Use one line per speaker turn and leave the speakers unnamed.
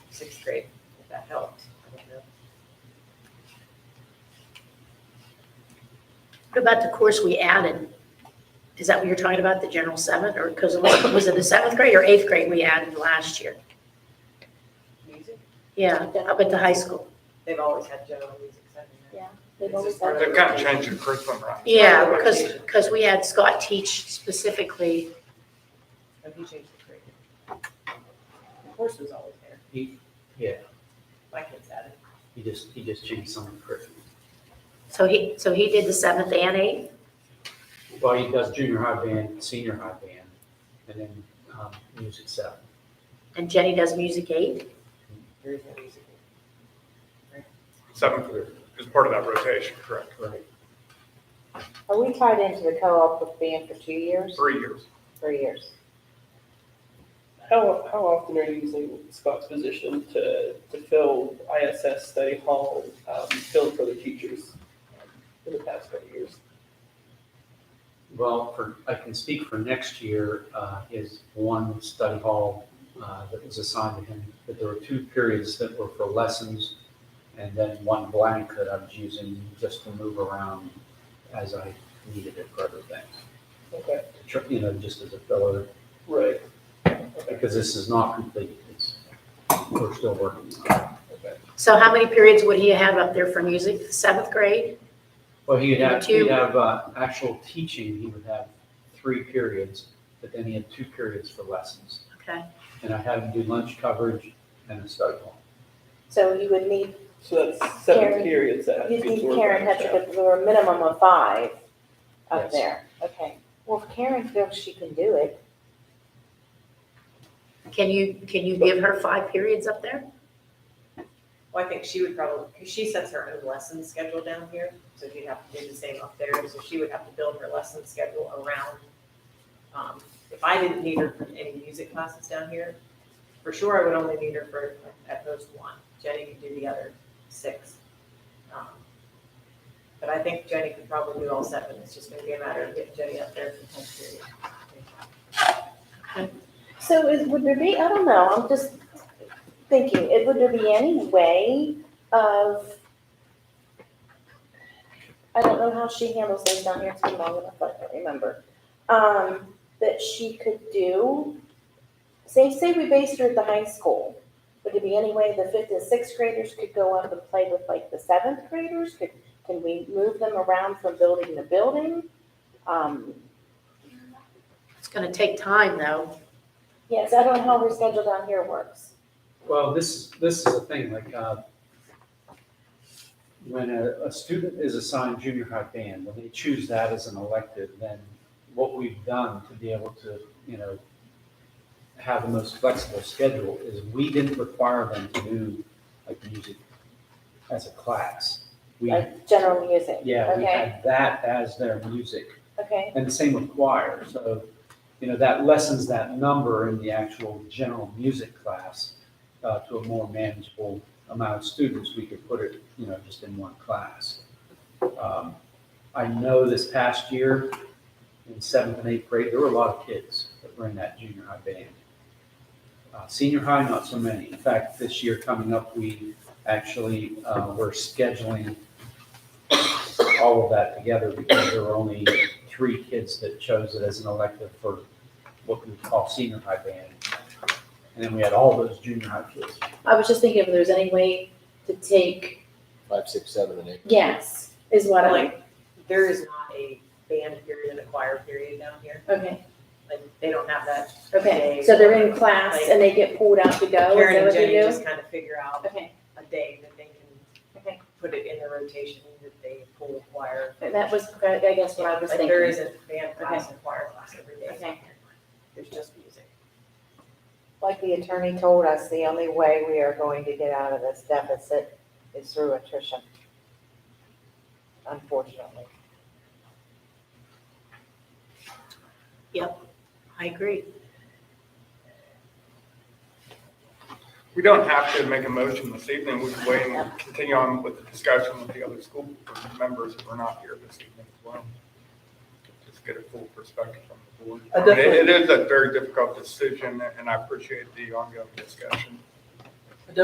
sixth grade, if that helped. I don't know.
What about the course we added? Is that what you're talking about, the general seventh, or, because was it the seventh grade or eighth grade we added last year?
Music,
Yeah, up at the high school.
they've always had general music, I mean,
They've always
They've
done
They've kind of changed the curriculum, right?
Yeah, because, because we had Scott teach specifically,
have you changed the curriculum? The course was always there,
He, yeah,
my kids had it.
he just, he just changed some of the curriculum.
so he, so he did the seventh and eighth?
Well, he does junior high band, senior high band, and then, um, music seven.
And Jenny does music eight?
There is no music.
Seven is part of that rotation, correct?
Right.
Are we tied into the co-op with band for two years,
Three years.
three years?
How, how often are you using Scott's position to, to fill ISS study hall, um, filled for the teachers um, in the past couple of years?
Well, for, I can speak for next year, uh, is one study hall, uh, that was assigned to him, but there were two periods that were for lessons, and then one blank that I was using just to move around as I needed it for other things.
Okay,
Tr- You know, just as a filler,
right.
because this is not complete, it's, we're still working on it.
So how many periods would he have up there for music? Seventh grade?
Well, he'd have,
Two.
he'd have uh, actual teaching, he would have three periods, but then he had two periods for lessons.
Okay.
And I had him do lunch coverage and a study hall.
So you would need,
So that's seven
Karen,
periods that have to
you'd
be
need
absorbed.
Karen
by
Hetrick with a minimum of five up
Yes.
there, okay. Well, if Karen feels she can do it,
Can you, can you give her five periods up there?
Well, I think she would probably, because she sets her own lesson schedule down here, so she'd have to do the same up there, so she would have to build her lesson schedule around. um, If I didn't need her for any music classes down here, for sure I would only need her for at most one, Jenny could do the other six. Um, But I think Jenny could probably do all seven, it's just gonna be a matter of getting Jenny up there for ten periods.
So is, would there be, I don't know, I'm just thinking, it, would there be any way of, I don't know how she handles things down here, it's been long enough, I don't remember, um, that she could do, say, say we based her at the high school, would there be any way the fifth and sixth graders could go up and play with like the seventh graders? Could, can we move them around from building to building? Um,
It's gonna take time, though.
yes, I don't know how her schedule down here works.
Well, this, this is the thing, like, uh, when a, a student is assigned junior high band, when they choose that as an elective, then what we've done to be able to, you know, have the most flexible schedule is we didn't require them to do like music as a class. We,
like general music.
yeah, we
Okay,
had that as their music.
okay,
And the same with choir, so, you know, that lessens that number in the actual general music class uh, to a more manageable amount of students, we could put it, you know, just in one class. Um, I know this past year, in seventh and eighth grade, there were a lot of kids that were in that junior high band. Uh, Senior high, not so many. In fact, this year coming up, we actually uh, were scheduling all of that together because there were only three kids that chose it as an elective for what we would call senior high band. And then we had all those junior high kids.
I was just thinking if there was any way to take,
five, six, seven, and eight.
yes, is what I,
Like, there is not a band period and a choir period down here,
okay,
like, they don't have that.
okay.
day.
So they're in class and they get pulled out to go, is
Karen
that
and
what they
Jenny
do?
just kind of figure out
Okay,
a day that they can
Okay.
put it in the rotation that they pull choir.
that was, I guess what I was
Like there
thinking,
isn't band class and choir class every day.
Okay.
There's just music.
Like the attorney told us, the only way we are going to get out of this deficit is through attrition. Unfortunately.
I agree.
We don't have to make a motion this evening, we can wait and continue on with the discussion with the other school board members who are not here this evening as well. Just get a full perspective from the board.
I
I mean,
definitely-
It it is a very difficult decision, and I appreciate the ongoing discussion.